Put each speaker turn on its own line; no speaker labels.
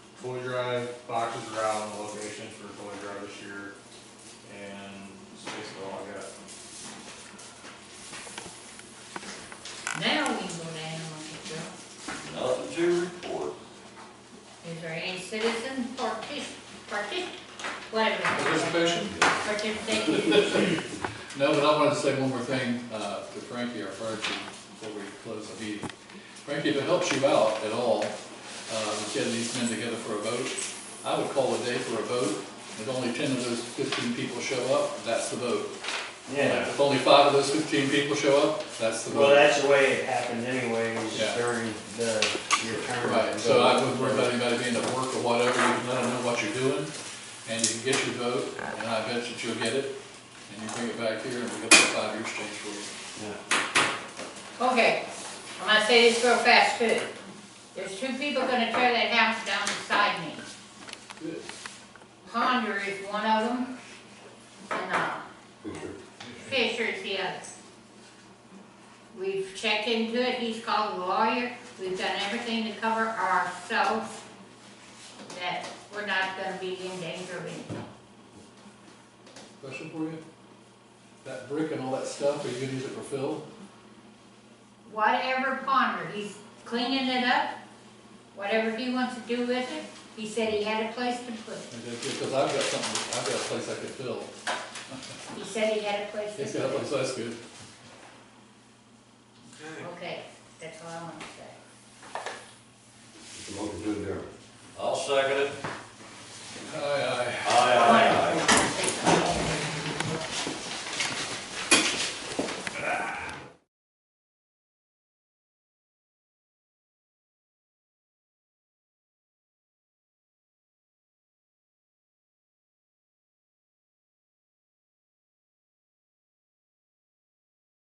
toy drive, boxes are out on the location for toy drive this year, and that's basically all I got.
Now we can go to animal control.
Nothing to report.
Is there any citizen partic, partic, whatever.
Participation?
Participation.
No, but I wanted to say one more thing uh, to Frankie, our fire chief, before we close the meeting. Frankie, if it helps you out at all, uh, with getting these men together for a vote, I would call a day for a vote. If only ten of those fifteen people show up, that's the vote.
Yeah,
If only five of those fifteen people show up, that's the
well,
vote.
that's the way it happened anyways,
Yeah.
during the, your term.
Right, so I wouldn't worry about anybody being at work or whatever, you can let them know what you're doing, and you can get your vote, and I bet that you'll get it, and you bring it back here, and we'll get the five-year change for you.
Yeah.
Okay, I'm gonna say this real fast too. There's two people gonna tear that house down beside me.
Good.
Ponder is one of them, and, uh, Fisher is the other. We've checked into it, he's called a lawyer, we've done everything to cover ourselves, that we're not gonna be in danger of anything.
Question for you? That brick and all that stuff, are you gonna use it for fill?
Whatever Ponder, he's cleaning it up, whatever he wants to do with it, he said he had a place to put it.
Because I've got something, I've got a place I could fill.
He said he had a place to
It's got a
put
place,
it.
that's good.
Okay, that's all I want to say.
Motion to adjourn.
I'll second it.